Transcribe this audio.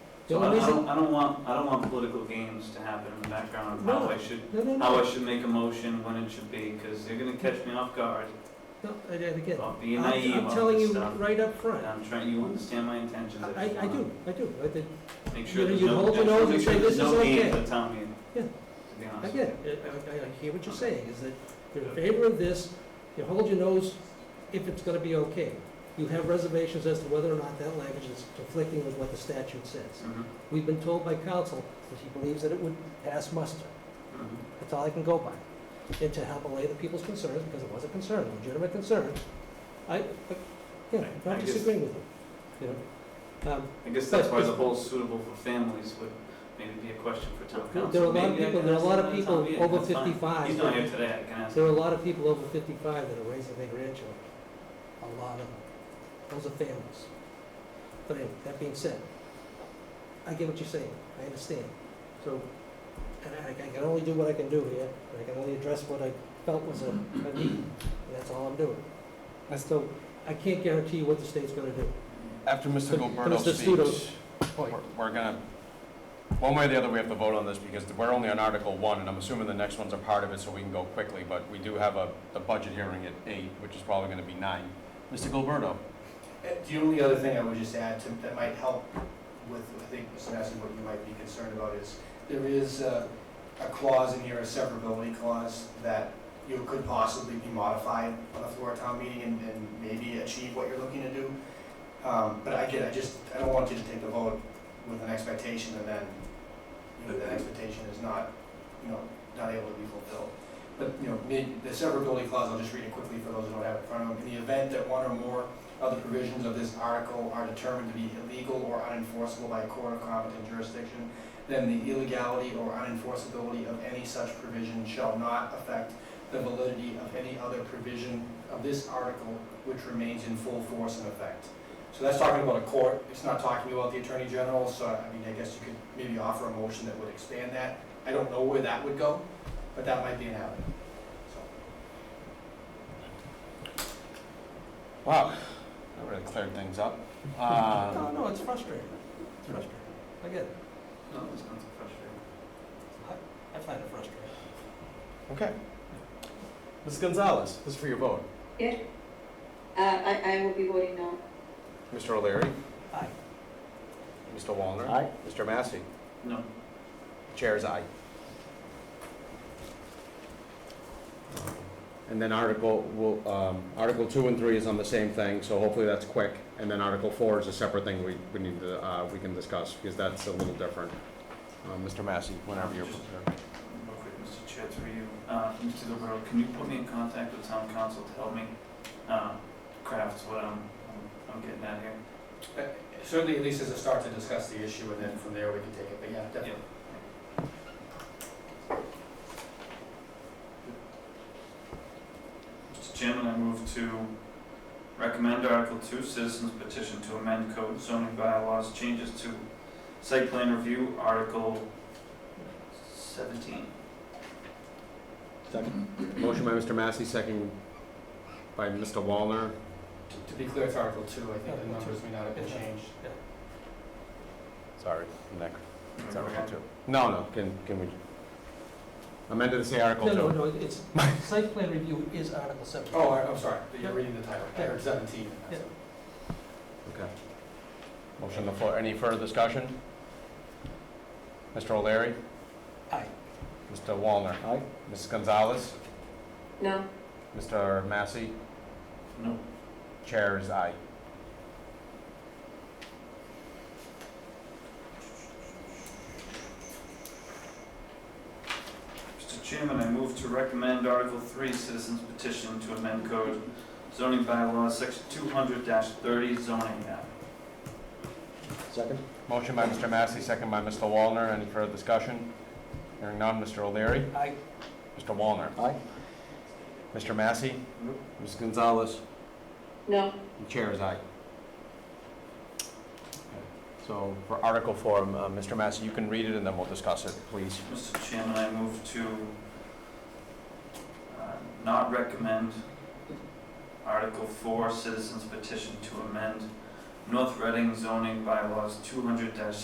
The So um, I I only reason, don't, I don't want, I don't want political games to happen in the background of how No. I should, no, no, how no, I should make a motion, when it should be, because they're gonna catch me off guard. no, I- I get it. I'm being uh, I'm naive I'm on telling this you stuff. right up And front. I'm trying, you understand my intentions. I, just I wanna do, I do. I did- Make You sure know, there's you no, hold just an wanna oath make and sure say, there's "This is no games okay." at town meeting. Yeah. To be I honest. get it. I, I, I hear what you're saying, is that you're in favor of this, you hold your nose if it's gonna be okay. You have reservations as to whether or not that language is conflicting with what the statute says. Mhm, We've been told by counsel that he believes that it would pass muster. mhm. That's all I can go by. And to help allay the people's concerns, because it was a concern, a legitimate concern, I, I- you know, I'm I not guess- disagreeing with you, you know? Um, I guess that's But- why the whole suitable for families would maybe be a question for town council. There are a lot of Maybe I people, can there are a ask lot them of at town people meeting, over that's fine. fifty-five. He's not here today, I can ask. There him. are a lot of people over 55 that are raising their grandchildren. A lot of them. Those are families. But anyway, that being said, I get what you're saying. I understand. So, and I, I can only do what I can do here, and I can only address what I felt was a, a need, and that's all I'm doing. I still, I can't guarantee you what the state's gonna do. After Mr. But- but Gilberto Mr. Studo- speaks, we're we're gonna, one way or the other, we have to vote on this because we're only on Article One, and I'm assuming the next one's a part of it, so we can go quickly, but we do have a, the budget hearing at eight, which is probably gonna be nine. Mr. Gilberto? The only other thing I would just add to, that might help with, I think, Mr. Massey, what you might be concerned about is, there is uh, a clause in here, a severability clause, that you know, could possibly be modified on the floor of town meeting and, and maybe achieve what you're looking to do. Um, But again, I just, I don't want you to take the vote with an expectation and then, you know, that expectation is not, you know, not able to be fulfilled. But, you know, may- the severability clause, I'll just read it quickly for those who don't have it in front of them. In the event that one or more other provisions of this article are determined to be illegal or unenforceable by a court of competent jurisdiction, then the illegality or unenforceability of any such provision shall not affect the validity of any other provision of this article which remains in full force and effect. So that's talking about a court, it's not talking about the Attorney General, so I mean, I guess you could maybe offer a motion that would expand that. I don't know where that would go, but that might be an avenue, so. Wow, that really cleared things up. Um, No, no, it's frustrating. It's frustrating. I get it. No, it's not so frustrating. I find it frustrating. Okay. Ms. Gonzalez, this is for your vote. Uh, I, I will be voting no. Mr. O'Leary? Aye. Mr. Wallner? Aye. Mr. Massey? No, Chair's eye. And then Article, will, um, Article two and three is on the same thing, so hopefully that's quick. And then Article four is a separate thing we, we need to, uh, we can discuss, because that's a little different. Uh, Mr. Massey, whenever you're prepared. real quick, Mr. Chair, through you, uh, Mr. Gilberto, can you put me in contact with town council to help me, uh, craft what I'm, I'm- I'm getting at here? Uh, Certainly, at least as a start to discuss the issue, and then from there, we can take it, but yeah, definitely. Mr. Chairman, I move to recommend Article Two, Citizens Petition to amend code zoning bylaws, changes to site plan review, Article seventeen. Second. Motion by Mr. Massey, second by Mr. Wallner. To- To be clear, it's Article Two, I think the Article two. numbers may not have been Yeah. changed. Sorry, Nick. It's Article two. No, no, can, can we? Amended to say Article No, two. no, no, it's, site plan review is Article 7. Oh, I- I'm sorry, Yeah. you're reading the title, I heard seventeen. Yeah. Okay. Motion on the floor. Any further discussion? Mr. O'Leary? Aye. Mr. Wallner? Aye. Mrs. Gonzalez? No. Mr. Massey? No, Chair is aye. Mr. Chairman, I move to recommend Article Three, Citizens Petition to amend code zoning bylaws, section two hundred thirty zoning map. Second? Motion by Mr. Massey, second by Mr. Wallner. Any further discussion? Hearing none. Mr. O'Leary? Aye. Mr. Wallner? Aye. Mr. Massey? Nope. Mrs. Gonzalez? No. And Chair is aye. So for Article Four, uh, Mr. Massey, you can read it and then we'll discuss it, please. Mr. Chairman, I move to uh, not recommend Article 4, Citizens Petition to amend North Reading zoning bylaws 200-6